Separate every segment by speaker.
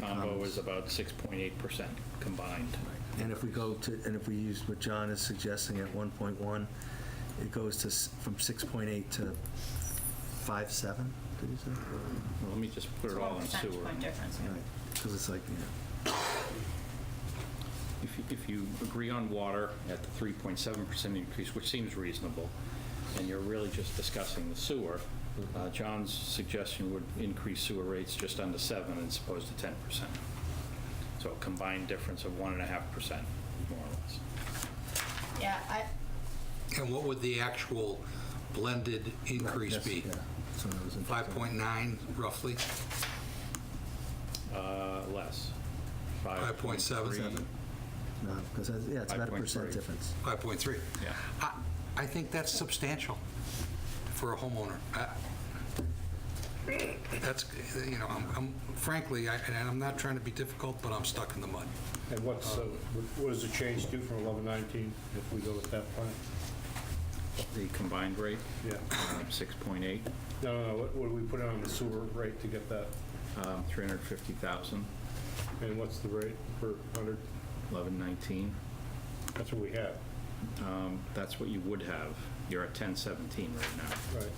Speaker 1: combo was about 6.8% combined.
Speaker 2: And if we go to, and if we use what John is suggesting at 1.1, it goes to, s- from 6.8 to 5.7, did you say?
Speaker 1: Let me just put
Speaker 3: It's
Speaker 1: it
Speaker 3: a
Speaker 1: all in
Speaker 3: percentage
Speaker 1: sewer.
Speaker 3: point difference, yeah.
Speaker 2: Because it's like, yeah,
Speaker 1: If you- If you agree on water at the 3.7% increase, which seems reasonable, and you're really just discussing the sewer, uh, John's suggestion would increase sewer rates just under 7 as opposed to 10%. So a combined difference of 1.5%, more or less.
Speaker 3: Yeah, I,
Speaker 4: And what would the actual blended increase
Speaker 2: that's-
Speaker 4: be?
Speaker 2: yeah. So that was interesting.
Speaker 4: 5.9 roughly?
Speaker 1: Uh, Less.
Speaker 4: 5.7.
Speaker 1: 5.3.
Speaker 2: No, because, yeah, it's about a percent
Speaker 1: 5.3.
Speaker 2: difference.
Speaker 4: 5.3?
Speaker 1: Yeah.
Speaker 4: I- I think that's substantial for a homeowner. I- That's, you know, I'm- I'm frankly, I- and I'm not trying to be difficult, but I'm stuck in the mud.
Speaker 5: And what's, uh, what does the change do from eleven nineteen if we go with that plan?
Speaker 1: The combined rate,
Speaker 5: Yeah,
Speaker 1: uh, 6.8,
Speaker 5: no, no, no, what what do we put on the sewer rate to get that?
Speaker 1: um, 350,000,
Speaker 5: And what's the rate per hundred?
Speaker 1: 1119.
Speaker 5: That's what we have,
Speaker 1: Um, That's what you would have. You're at 1017 right now.
Speaker 5: right?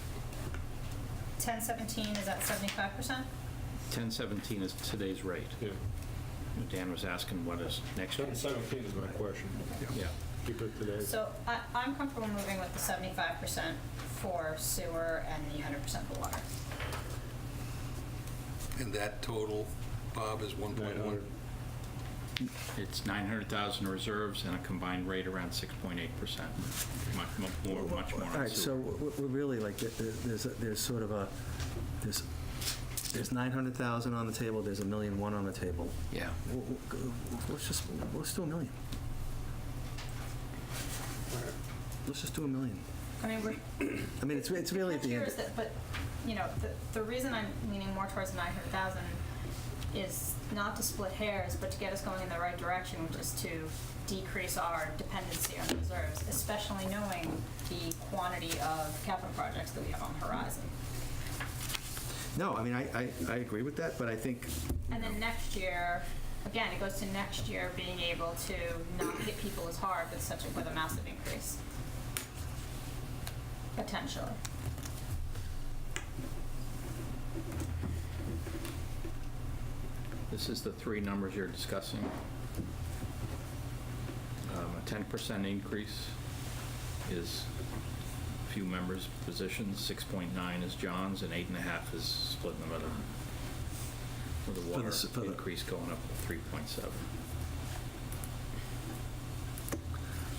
Speaker 3: ten seventeen is at seventy-five percent?
Speaker 1: 1017 is today's rate.
Speaker 5: Yeah.
Speaker 1: Dan was asking what is next
Speaker 5: Seven
Speaker 1: year's.
Speaker 5: seventeen is my question.
Speaker 1: Yeah.
Speaker 5: Keep it today.
Speaker 3: So I, I'm comfortable moving with the seventy-five percent for sewer and the hundred percent for water.
Speaker 4: And that total, Bob, is 1.1?
Speaker 5: 900.
Speaker 1: It's 900,000 reserves and a combined rate around 6.8%. Much mu- more, much more
Speaker 2: All
Speaker 1: on
Speaker 2: right, so
Speaker 1: sewer.
Speaker 2: we're we're really like, th- th- there's, a- there's sort of a, there's, there's 900,000 on the table, there's a million one on the table.
Speaker 1: Yeah.
Speaker 2: W- w- g- Let's just, let's do a million. Let's just do a million.
Speaker 3: I mean, we're,
Speaker 2: I mean, it's, it's really at the
Speaker 3: Here
Speaker 2: end.
Speaker 3: is that- But, you know, the, the reason I'm leaning more towards nine hundred thousand is not to split hairs, but to get us going in the right direction, which is to decrease our dependency on reserves, especially knowing the quantity of capital projects that we have on the horizon.
Speaker 2: No, I mean, I, I, I agree with that, but I think,
Speaker 3: And then next year, again, it goes to next year being able to not hit people as hard with such a, with a massive increase. Potentially.
Speaker 1: This is the three numbers you're discussing. Um, A 10% increase is a few members' positions, 6.9 is John's, and 8.5 is split in the middle. With
Speaker 2: the
Speaker 1: the
Speaker 2: s- for
Speaker 1: water
Speaker 2: the-
Speaker 1: increase going up to 3.7.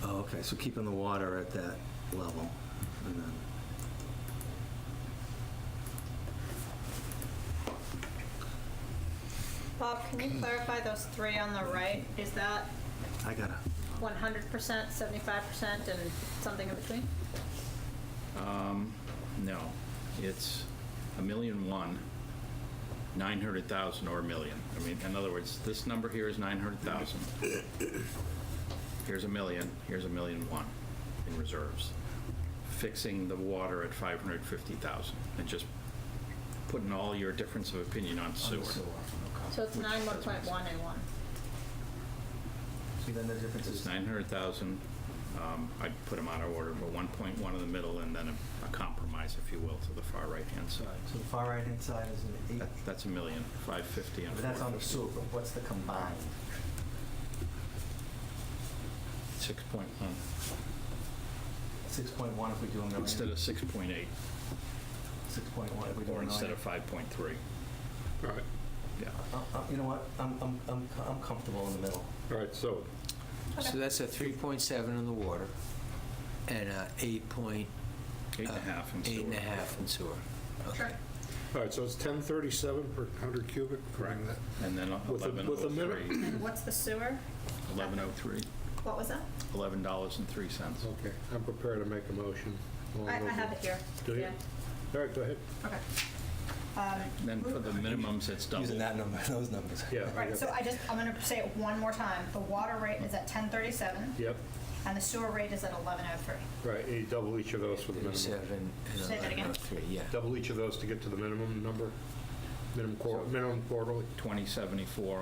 Speaker 2: oh, okay, so keeping the water at that level. and then-
Speaker 3: Bob, can you clarify those three on the right? Is that
Speaker 2: I gotta,
Speaker 3: one hundred percent, seventy-five percent, and something in between?
Speaker 1: Um, no, it's a million one, nine hundred thousand or a million. I mean, in other words, this number here is nine hundred thousand. Here's a million, here's a million one in reserves. Fixing the water at five hundred fifty thousand and just putting all your difference of opinion on sewer.
Speaker 3: So it's nine, one point one, and one.
Speaker 2: see then the difference
Speaker 1: It's
Speaker 2: is,
Speaker 1: nine hundred thousand, um, I'd put them out of order, but one point one in the middle and then a- a compromise, if you will, to the far right-hand side.
Speaker 2: so the far right-hand side is an eight.
Speaker 1: That- That's a million, 550 and
Speaker 2: But that's on the
Speaker 1: 450.
Speaker 2: sewer, but what's the combined?
Speaker 1: 6.1,
Speaker 2: Hmm. Six point one if we do a million?
Speaker 1: instead of 6.8,
Speaker 2: Six point one if we do a
Speaker 1: or
Speaker 2: million?
Speaker 1: instead of 5.3.
Speaker 5: All right,
Speaker 1: Yeah.
Speaker 2: Uh, uh, You know what, I'm, I'm, I'm I'm comfortable in the middle.
Speaker 5: all right, so
Speaker 3: Okay.
Speaker 6: So that's a 3.7 in the water and a 8.8
Speaker 1: Eight
Speaker 2: Uh,
Speaker 1: and a half in sewer.
Speaker 6: Eight and a half in sewer. Okay.
Speaker 5: All right, so it's 1037 per 100 cubic? Correct.
Speaker 1: And then
Speaker 5: With a- with a minute-
Speaker 1: 1103,
Speaker 3: And what's the sewer?
Speaker 1: 1103,
Speaker 3: What was that?
Speaker 1: $11.03.
Speaker 5: Okay, I'm prepared to make a motion. All
Speaker 3: I, I
Speaker 5: those-
Speaker 3: have it here.
Speaker 5: Do you?
Speaker 3: Yeah.
Speaker 5: All right, go ahead.
Speaker 3: Okay. Um,
Speaker 1: Then for the minimums, it's double.
Speaker 2: Using that number, those numbers.
Speaker 5: Yeah. I
Speaker 3: Right,
Speaker 5: got
Speaker 3: so
Speaker 5: it.
Speaker 3: I just, I'm gonna say it one more time. The water rate is at ten thirty-seven,
Speaker 5: Yep,
Speaker 3: and the sewer rate is at eleven oh three.
Speaker 5: right, you double each of those for the minimum.
Speaker 6: 7 and
Speaker 3: Say that again.
Speaker 6: 11.03, yeah.
Speaker 5: Double each of those to get to the minimum number, minimum quar- minimum quarterly.
Speaker 1: 2074